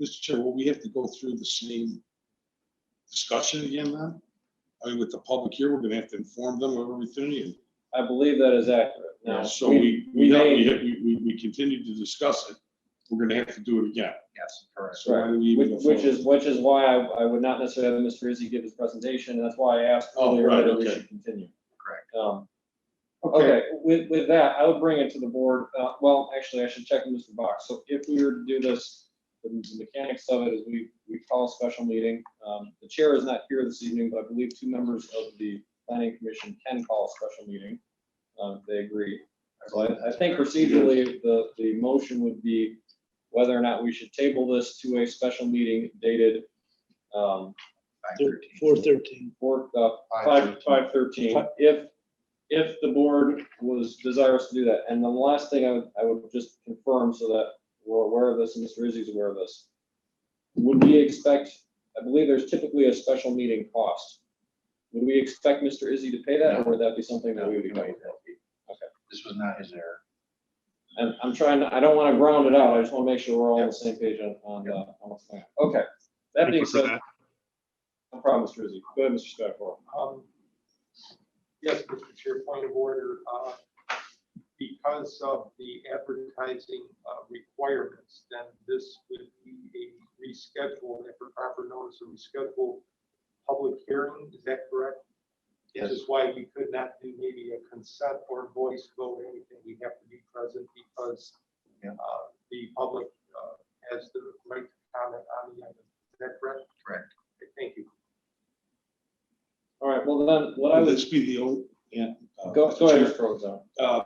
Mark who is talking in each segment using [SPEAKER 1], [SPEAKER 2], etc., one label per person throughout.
[SPEAKER 1] Mr. Chair, will we have to go through the same discussion again then? I mean, with the public here, we're gonna have to inform them of everything.
[SPEAKER 2] I believe that is accurate. Now,
[SPEAKER 1] and So we, we,
[SPEAKER 2] we
[SPEAKER 1] have-
[SPEAKER 2] may-
[SPEAKER 1] we, have- we, we- we continue to discuss it. We're gonna have to do it again.
[SPEAKER 3] Yes, correct.
[SPEAKER 1] So why do we
[SPEAKER 2] Which
[SPEAKER 1] even?
[SPEAKER 2] which is, which is why I, I would not necessarily have Mr. Izzy give his presentation, and that's why I asked
[SPEAKER 1] Oh,
[SPEAKER 2] earlier
[SPEAKER 1] right,
[SPEAKER 2] whether we
[SPEAKER 1] okay.
[SPEAKER 2] should continue.
[SPEAKER 3] Correct.
[SPEAKER 2] Um, Okay, with, with that, I would bring it to the board, uh, well, actually, I should check with Mr. Box, so if we were to do this, the mechanics of it is we, we call a special meeting, um, the chair is not here this evening, but I believe two members of the planning commission can call a special meeting, um, if they agree. So I, I think procedurally, the, the motion would be whether or not we should table this to a special meeting dated, um,
[SPEAKER 3] Five thirteen.
[SPEAKER 4] Four thirteen.
[SPEAKER 2] four, uh,
[SPEAKER 3] Five
[SPEAKER 2] Five,
[SPEAKER 3] thirteen.
[SPEAKER 2] five thirteen, if, if the board was desirous to do that. And the last thing I would, I would just confirm so that we're aware of this and Mr. Izzy's aware of this. Would we expect, I believe there's typically a special meeting cost. Would we expect Mr. Izzy to pay that or would that be something that we would be paying?
[SPEAKER 3] This was not his error.
[SPEAKER 2] And I'm trying, to- I don't want to ground it out. I just want to make sure we're all on the same page on, on, uh, on the plan. Okay. That
[SPEAKER 5] Thank
[SPEAKER 2] being
[SPEAKER 5] you for
[SPEAKER 2] said,
[SPEAKER 5] that.
[SPEAKER 2] no problem, Mr. Izzy. Go ahead, Mr. Spatafora.
[SPEAKER 6] Um, Yes, Mr. Chair, point of order. uh, Because of the advertising uh, requirements, then this would be a reschedule, if a proper notice, a rescheduled public hearing, is that correct? This is why we could not do maybe a consent or voice vote, or anything. We have to be present because
[SPEAKER 3] Yeah.
[SPEAKER 6] uh, the public uh, has the right to comment on the item. Is that correct?
[SPEAKER 3] Correct.
[SPEAKER 6] Okay, Thank you.
[SPEAKER 2] All right, well then, what I
[SPEAKER 1] Would
[SPEAKER 2] was,
[SPEAKER 1] this be the old, yeah. uh,
[SPEAKER 2] go,
[SPEAKER 1] Mr.
[SPEAKER 2] go ahead,
[SPEAKER 1] Chair,
[SPEAKER 2] Mr. Rozak.
[SPEAKER 1] Uh,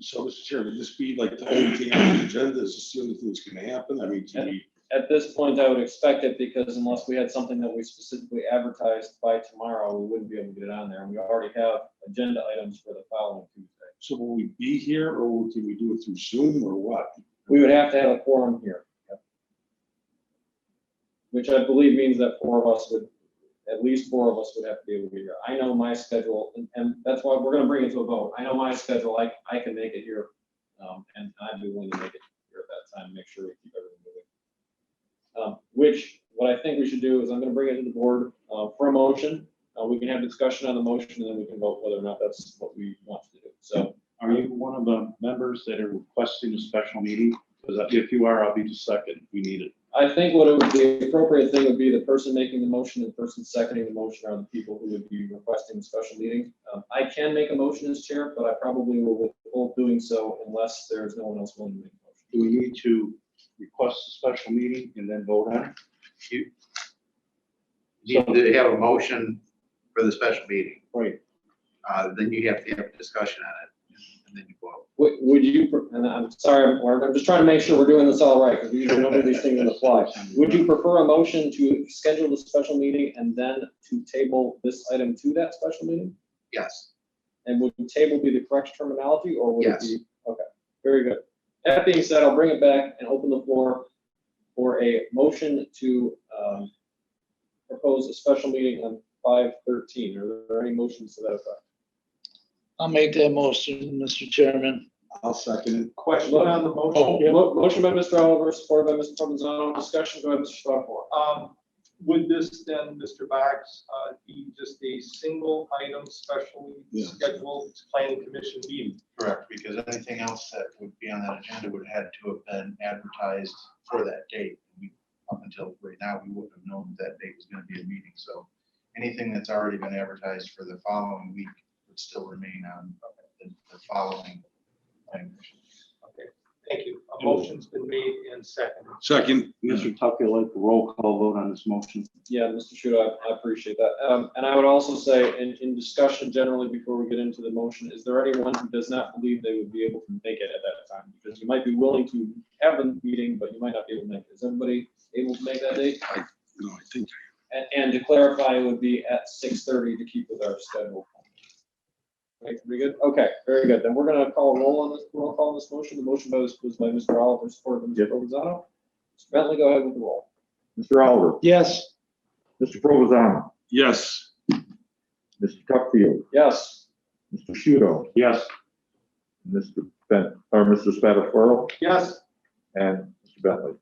[SPEAKER 1] so, Mr. Chair, would this be like the only thing on the agenda? Is this the only thing that's gonna happen? I mean, can we?
[SPEAKER 2] At this point, I would expect it because unless we had something that we specifically advertised by tomorrow, we wouldn't be able to get it on there. And we already have agenda items for the following Tuesday.
[SPEAKER 1] So will we be here or can we do it through Zoom or what?
[SPEAKER 2] We would have to have a quorum here. Which I believe means that four of us would, at least four of us would have to be able to be here. I know my schedule, and, and that's why we're gonna bring it to a vote. I know my schedule, I, I can make it here. Um, and I'd be willing to make it here at that time, make sure we keep everything moving. Um, which, what I think we should do is I'm gonna bring it to the board, uh, for a motion. Uh, we can have discussion on the motion, and then we can vote whether or not that's what we want to do. So,
[SPEAKER 5] Are you one of the members that are requesting a special meeting? Because if you are, I'll be the second. We need it.
[SPEAKER 2] I think what it would be, the appropriate thing would be the person making the motion and the person seconding the motion are the people who would be requesting the special meeting. Um, I can make a motion as chair, but I probably will withhold doing so unless there's no one else willing to make a motion.
[SPEAKER 5] Do we need to request a special meeting and then vote on it?
[SPEAKER 3] You need to have a motion for the special meeting.
[SPEAKER 5] Right.
[SPEAKER 3] Uh, then you have to have a discussion on it, and then you vote.
[SPEAKER 2] Would, would you, pre- and I'm sorry, I'm- I'm just trying to make sure we're doing this all right, because we usually don't do these things on the fly. Would you prefer a motion to schedule the special meeting and then to table this item to that special meeting?
[SPEAKER 3] Yes,
[SPEAKER 2] And would table be the correct terminology, or would it
[SPEAKER 3] Yes.
[SPEAKER 2] be? Okay, very good. That being said, I'll bring it back and open the floor for a motion to um, propose a special meeting on five thirteen. Are there any motions to that effect?
[SPEAKER 4] I'll make that motion, Mr. Chairman.
[SPEAKER 1] I'll second it.
[SPEAKER 6] Question on the motion?
[SPEAKER 1] Oh.
[SPEAKER 2] Yeah, mo- Motion by Mr. Oliver, supported by Mr. Provenzano. Discussion, go ahead, Mr. Strathmore.
[SPEAKER 6] Um, Would this then, Mr. Box, uh, be just a single item specially
[SPEAKER 1] Yeah.
[SPEAKER 6] scheduled planning commission meeting?
[SPEAKER 7] Correct, because anything else that would be on that agenda would have had to have been advertised for that date. We- Up until right now, we wouldn't have known that date was gonna be a meeting, so anything that's already been advertised for the following week would still remain on the the following. thing.
[SPEAKER 6] Okay, thank you. A motion's been made and seconded.
[SPEAKER 1] Second,
[SPEAKER 5] Mr. Tucker, like a roll call vote on this motion?
[SPEAKER 2] Yeah, Mr. Shudo, I- I appreciate that. Um, And I would also say, in, in discussion generally, before we get into the motion, is there anyone who does not believe they would be able to make it at that time? Because you might be willing to have a meeting, but you might not be able to make it. Is everybody able to make that date?
[SPEAKER 1] no, I think,
[SPEAKER 2] And, and to clarify, it would be at six thirty to keep with our schedule. Okay, pretty good? Okay, very good. Then we're gonna call a roll on this, roll call on this motion. The motion by was was by Mr. Oliver, supported by Mr.
[SPEAKER 5] Yep.
[SPEAKER 2] Provenzano. Mr. Bentley, go ahead with the roll.
[SPEAKER 8] Mr. Oliver,
[SPEAKER 4] Yes,
[SPEAKER 8] Mr. Provozano,
[SPEAKER 1] yes,
[SPEAKER 8] Mr. Tuckfield,
[SPEAKER 2] Yes.
[SPEAKER 8] Mr. Shudo,
[SPEAKER 5] Yes.
[SPEAKER 8] Mr. Ben, or Mr. Spatafaro,
[SPEAKER 6] Yes,
[SPEAKER 8] and Mr. Bentley.